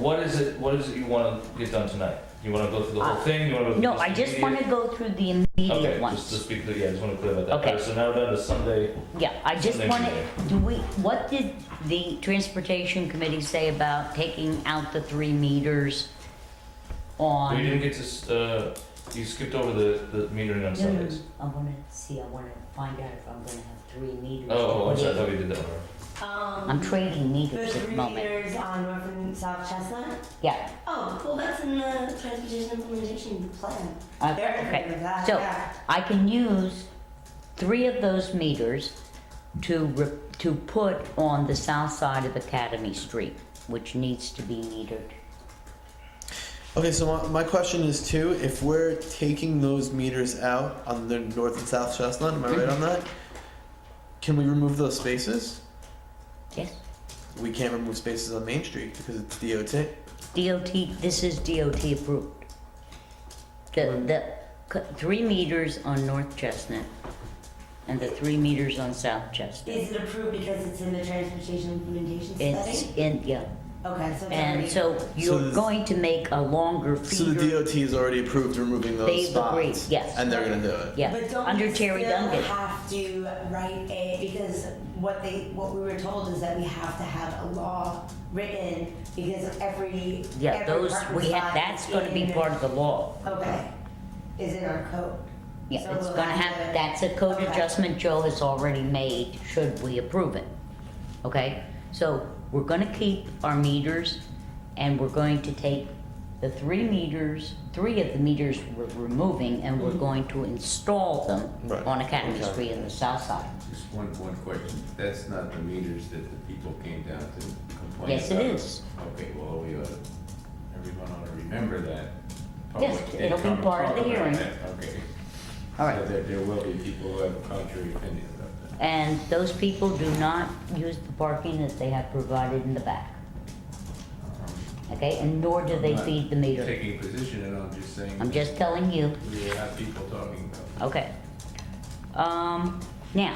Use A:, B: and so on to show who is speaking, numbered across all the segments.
A: what is it, what is it you wanna get done tonight? You wanna go through the whole
B: Uh,
A: thing, you wanna go through
B: No,
A: just
B: I just
A: immediate-
B: want to go through the
A: Okay,
B: immediate
A: just to
B: ones.
A: speak, yeah, just wanna clear about that.
B: Okay.
A: Alright, So now we're down to Sunday,
B: Yeah, I just
A: Something
B: want
A: to
B: to, do we, what did the transportation committee say about taking out the three meters on?
A: we Oh, didn't get to, s- uh, you skipped over the, the metering on
B: No, no, no,
A: Sundays.
B: I wanna see, I wanna find out if I'm gonna have three meters.
A: Oh, I'm sorry, I thought we did that one.
B: I'm
C: Um,
B: trading
C: the
B: meters at the
C: three
B: moment.
C: meters on North and South Chestnut?
B: Yeah,
C: Oh, well, that's in the transportation implementation plan.
B: Uh,
C: They're
B: okay.
C: agreeing with that,
B: So-
C: yeah.
B: I can use three of those meters to, re- to put on the south side of Academy Street, which needs to be metered.
D: Okay, so my, my question is too: if we're taking those meters out on the north and south Chestnut, am I right
B: Mm-hmm.
D: on that? Can we remove those spaces?
B: Yes?
D: We can't remove spaces on Main Street because it's DOT.
B: DOT, this is DOT approved. The, the c- three meters on North Chestnut and the three meters on South Chestnut.
C: Is it approved because it's in the transportation implementation
B: It's
C: study?
B: in, yeah,
C: Okay, so it's
B: and
C: already.
B: so you're
D: this-
B: going to make a longer
D: So the
B: feeder.
D: DOT has already approved removing those
B: They've
D: spots,
B: agreed, yes.
D: and they're gonna do it.
B: Yeah,
C: But don't
B: under
C: we
B: Terry
C: still
B: Duncan.
C: have to write a, because what they, what we were told is that we have to have a law written because every,
B: Yeah,
C: every
B: those,
C: parking
B: we have,
C: spot
B: that's gonna be
C: in-
B: part of the law.
C: Okay, is in our code. So
B: Yeah, it's
C: we'll
B: gonna
C: have
B: have,
C: to-
B: that's a code
C: Okay.
B: adjustment Joe has already made, should we approve it. Okay, so we're gonna keep our meters and we're going to take the three meters, three of the meters we're removing and
C: Mm-hmm.
B: we're going to install
D: Right,
B: them on Academy
D: okay.
B: Street in the south side.
E: Just one, one question. That's not the meters that the people came down to complain about?
B: Yes, it is.
E: Okay, well, we ought to, everyone ought to remember that.
B: Yes,
E: Public did
B: it'll be
E: come and
B: part of
E: talk
B: the
E: about
B: hearing.
E: that. Okay.
B: All right.
E: So there, there will be people who have contrary opinions about that.
B: And those people do not use the parking that they have provided in the back,
E: Um,
B: okay? And nor do they
E: I'm not
B: feed the meter.
E: Taking a position, and I'm just saying,
B: I'm just telling you.
E: we will have people talking about
B: Okay. Um, now.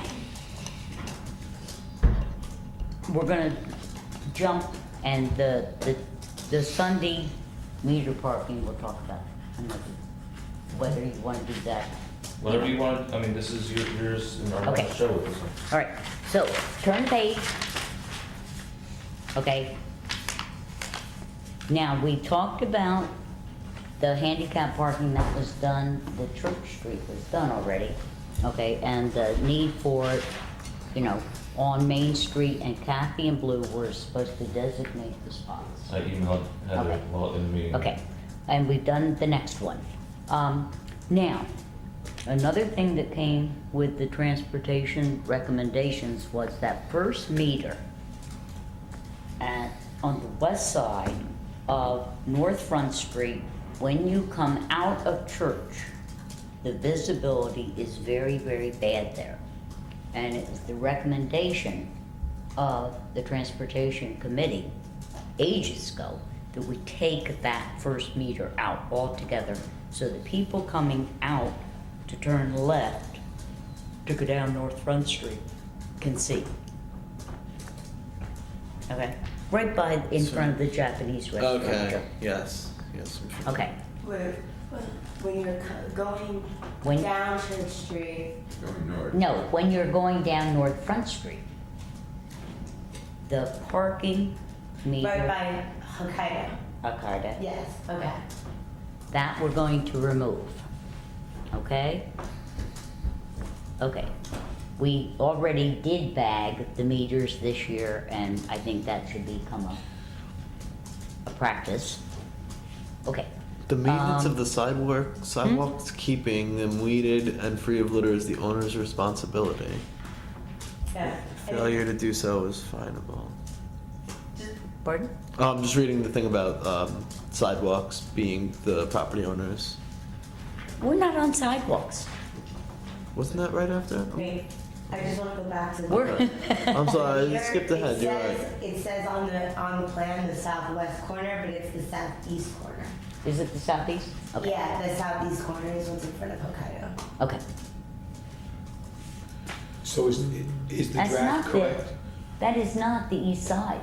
B: We're gonna jump and the, the, the Sunday meter parking, we'll talk about another, whether you wanna do that.
A: Whatever you want, I mean, this is your- yours, and I'm
B: Okay.
A: gonna show it, so.
B: Alright, so turn the page. Okay. Now, we talked about the handicap parking that was done, the Church Street was done already. Okay, and the need for, it, you know, on Main Street and Kathy and Blue were supposed to designate the spots.
A: I emailed Heather
B: Okay.
A: while in the meeting.
B: Okay, and we've done the next one. Um, now, another thing that came with the transportation recommendations was that first meter at, on the west side of North Front Street, when you come out of church, the visibility is very, very bad there. And it was the recommendation of the Transportation Committee ages ago that we take that first meter out altogether so that people coming out to turn left to go down North Front Street can see. Okay, right by, in front of the Japanese restaurant.
D: Okay. Yes. Yes. I'm sure.
B: Okay,
C: Where, when you're co- going
B: When-
C: down Church Street,
E: going north.
B: no, when you're going down North Front Street, the parking
C: right
B: meter,
C: by Hokkaido.
B: Akata,
C: Yes, okay.
B: That we're going to remove, okay? Okay, we already did bag the meters this year, and I think that should become a, a practice. Okay,
D: The
B: Um,
D: maintenance
B: hmm?
D: of the sidewalk sidewalks, keeping them weeded and free of litter, is the owner's responsibility.
C: Yeah. And
D: Failure to do so is finable.
C: just-
B: pardon?
D: Oh, I'm just reading the thing about um, sidewalks being the property owners.
B: We're not on sidewalks.
D: Wasn't that right after?
C: Wait, I just wanna go back to. the-
B: We're.
D: I'm sorry, I
C: Here
D: skipped ahead.
C: it
D: You're
C: says-
D: right.
C: It says on the, on the plan, the southwest corner, but it's the southeast corner.
B: Is it the southeast? Okay.
C: Yeah, the southeast corner is what's in front of Hokkaido.
B: Okay,
F: So is, is the
B: that's
F: draft
B: not the,
F: correct?
B: that is not the east side.